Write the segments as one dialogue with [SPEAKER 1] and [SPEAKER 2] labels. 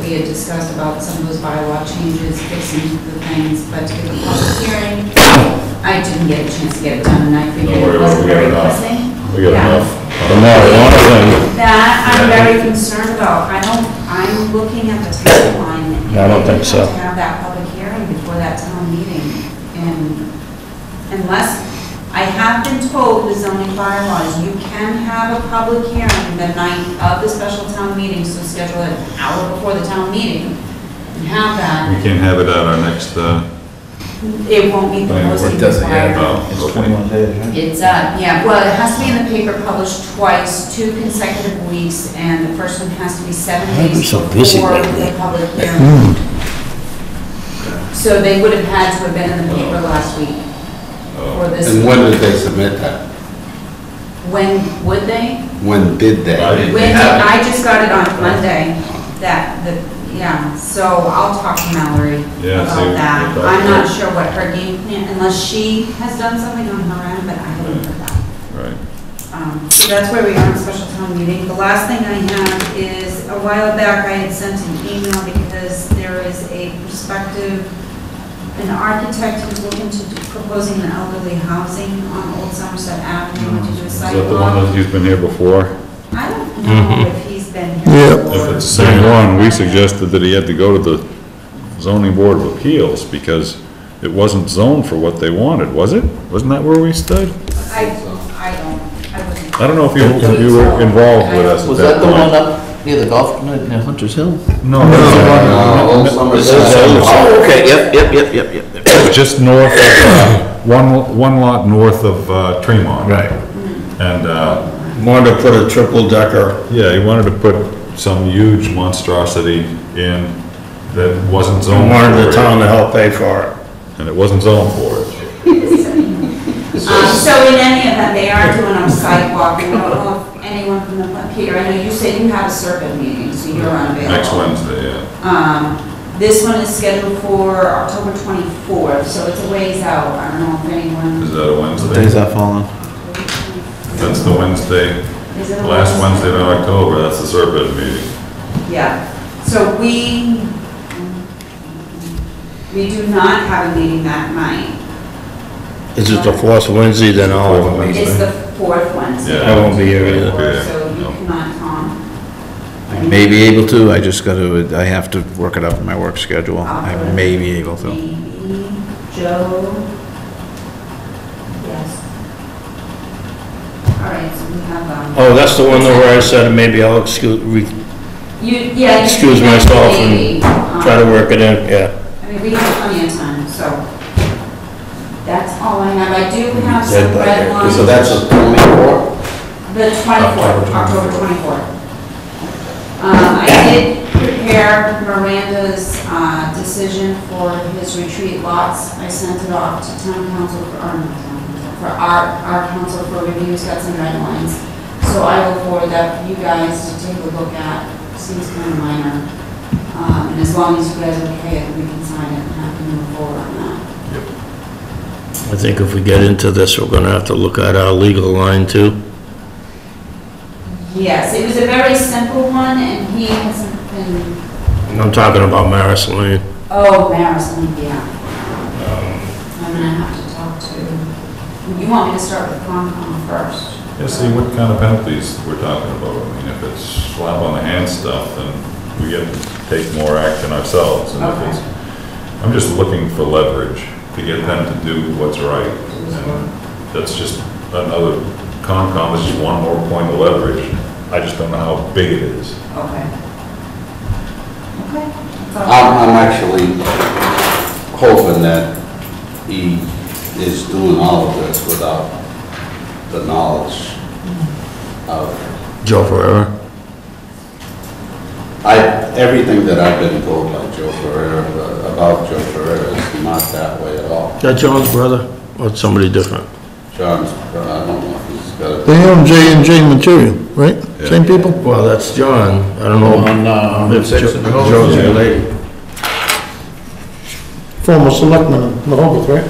[SPEAKER 1] we had discussed about some of those bylaw changes, fixing the things, but to get the public hearing, I didn't get a chance to get it done, and I figured
[SPEAKER 2] Don't worry
[SPEAKER 1] it
[SPEAKER 2] about it,
[SPEAKER 1] wasn't
[SPEAKER 2] we got
[SPEAKER 1] very pressing.
[SPEAKER 2] enough. We got
[SPEAKER 1] Yeah.
[SPEAKER 2] enough.
[SPEAKER 3] The marijuana thing,
[SPEAKER 4] That I'm very concerned about. I don't, I'm looking at the timeline.
[SPEAKER 3] Yeah, I don't think so.
[SPEAKER 4] We have to have that public hearing before that town meeting. And unless, I have been told the zoning bylaws, you can have a public hearing the night of the special town meeting, so schedule it an hour before the town meeting and have
[SPEAKER 2] We
[SPEAKER 4] that.
[SPEAKER 2] can't have it at our next, uh,
[SPEAKER 4] It won't be the
[SPEAKER 2] Planning board
[SPEAKER 4] posting
[SPEAKER 5] doesn't have
[SPEAKER 4] required.
[SPEAKER 2] oh,
[SPEAKER 5] It's
[SPEAKER 2] okay.
[SPEAKER 5] 21 days, right?
[SPEAKER 4] It's, uh, yeah, well, it has to be in the paper published twice, two consecutive weeks, and the first one has to be seven
[SPEAKER 3] I've been
[SPEAKER 4] days
[SPEAKER 3] so
[SPEAKER 4] before
[SPEAKER 3] busy lately.
[SPEAKER 4] the public hearing.
[SPEAKER 3] hmm.
[SPEAKER 4] So they would have had to have been in the paper last week
[SPEAKER 2] Oh,
[SPEAKER 4] or this.
[SPEAKER 6] And when did they submit that?
[SPEAKER 4] When would they?
[SPEAKER 6] When did they?
[SPEAKER 2] I
[SPEAKER 4] When
[SPEAKER 2] didn't-
[SPEAKER 4] did, I just got it on Monday, that, the, yeah, so I'll talk to Mallory
[SPEAKER 2] Yeah, see
[SPEAKER 4] about
[SPEAKER 2] what
[SPEAKER 4] that.
[SPEAKER 2] they thought.
[SPEAKER 4] I'm not sure what her game plan, unless she has done something on her end, but I haven't heard that.
[SPEAKER 2] Right.
[SPEAKER 4] Um, So that's where we are on special town meeting. The last thing I have is, a while back, I had sent an email because there is a prospective, an architect who's looking to, proposing an elderly housing on Old Somerset Avenue, to do a
[SPEAKER 2] Is that the one
[SPEAKER 4] sidewalk.
[SPEAKER 2] that he's been here before?
[SPEAKER 4] I don't know if he's been here before.
[SPEAKER 2] If it's the same one, we suggested that he had to go to the zoning board of appeals because it wasn't zoned for what they wanted, was it? Wasn't that where we stood?
[SPEAKER 4] I, I don't, I wasn't.
[SPEAKER 2] I don't know if you, if you were involved with us at
[SPEAKER 5] Was that
[SPEAKER 2] that
[SPEAKER 5] the one
[SPEAKER 2] point.
[SPEAKER 5] up near the golf, near Hunter's Hill?
[SPEAKER 2] No,
[SPEAKER 6] Uh,
[SPEAKER 2] that
[SPEAKER 6] No,
[SPEAKER 2] was
[SPEAKER 6] Old
[SPEAKER 2] the one.
[SPEAKER 6] Somerset.
[SPEAKER 5] Oh, okay, yep, yep, yep, yep, yep.
[SPEAKER 2] Just north of, uh, one, one lot north of uh, Tremont.
[SPEAKER 3] Right.
[SPEAKER 2] And, uh,
[SPEAKER 3] wanted to put a triple decker,
[SPEAKER 2] Yeah, he wanted to put some huge monstrosity in that wasn't zoned
[SPEAKER 3] wanted the town
[SPEAKER 2] for
[SPEAKER 3] to help pay for it.
[SPEAKER 2] it. And it wasn't zoned for
[SPEAKER 4] Um,
[SPEAKER 2] it.
[SPEAKER 4] So in any event, they are doing a sidewalk, and I don't know if anyone from the, Peter, I know you said you had a serpent meeting, so you're unavailable.
[SPEAKER 2] Next Wednesday, yeah.
[SPEAKER 4] Um, This one is scheduled for October 24th, so it's a ways out. I don't know if anyone,
[SPEAKER 2] Is that a
[SPEAKER 5] What day is
[SPEAKER 2] Wednesday?
[SPEAKER 5] that falling?
[SPEAKER 2] That's the Wednesday,
[SPEAKER 4] is it? a
[SPEAKER 2] last
[SPEAKER 4] ways?
[SPEAKER 2] Wednesday of October, that's the Serpent meeting.
[SPEAKER 4] Yeah, so we, we do not have a meeting that night.
[SPEAKER 3] Is it the fourth Wednesday then all of them?
[SPEAKER 2] Fourth
[SPEAKER 4] It's the fourth Wednesday.
[SPEAKER 2] Yeah.
[SPEAKER 3] Oh, I won't be here
[SPEAKER 2] Yeah,
[SPEAKER 3] either.
[SPEAKER 2] okay.
[SPEAKER 4] So you cannot come.
[SPEAKER 5] I may be able to, I just gotta, I have to work it out in my work schedule. I may be able to.
[SPEAKER 4] Maybe Joe? Yes. All right, so we have, um,
[SPEAKER 3] Oh, that's the one where I said maybe I'll excuse, re-
[SPEAKER 4] you, yeah. you
[SPEAKER 3] Excuse
[SPEAKER 4] can have
[SPEAKER 3] myself and
[SPEAKER 4] maybe, um,
[SPEAKER 3] try to work it in, yeah.
[SPEAKER 4] I mean, we have plenty of time, so that's all I have. I do have some red lines,
[SPEAKER 6] So that's a twenty-four?
[SPEAKER 4] the 24th, October 24th. Um, I did prepare Miranda's uh, decision for his retreat lots. I sent it off to town council, for or not town council, for our, our council for review, it's got some red lines. So I will forward that for you guys to take a look at, seems kind of minor. Um, And as long as you guys are okay, we can sign it and have to move forward on that.
[SPEAKER 3] I think if we get into this, we're gonna have to look at our legal line too.
[SPEAKER 4] Yes, it was a very simple one, and he hasn't been,
[SPEAKER 3] I'm talking about Maris Lane.
[SPEAKER 4] oh, Maris, yeah. I'm gonna have to talk to, you want me to start with Concom first?
[SPEAKER 2] Yeah, see, what kind of penalties we're talking about? I mean, if it's slap on the hand stuff, then we get to take more action ourselves. And if it's, I'm just looking for leverage to get them to do what's right. And that's just another, Concom is just one more point of leverage. I just don't know how big it is.
[SPEAKER 4] Okay. Okay. that's all.
[SPEAKER 6] I'm, I'm actually hoping that he is doing all of this without the knowledge of,
[SPEAKER 3] Joe Ferrera?
[SPEAKER 6] I, everything that I've been told by Joe Ferrera, uh, about Joe Ferrera is not that way at all.
[SPEAKER 3] That John's brother? Or somebody different?
[SPEAKER 6] John's, uh, I don't know if he's got a...
[SPEAKER 7] They own J and J material, right? Same people?
[SPEAKER 3] Well, that's John. I don't know. if Jo- Joe's related.
[SPEAKER 7] Former selectman in Rehoboth, right?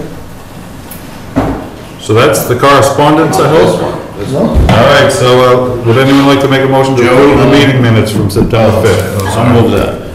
[SPEAKER 2] So that's the correspondence, I
[SPEAKER 6] This
[SPEAKER 2] hope?
[SPEAKER 6] one, this one.
[SPEAKER 2] All uh, right, so uh, would anyone like to make a motion to approve the meeting minutes from September 5th?
[SPEAKER 3] I'll move that.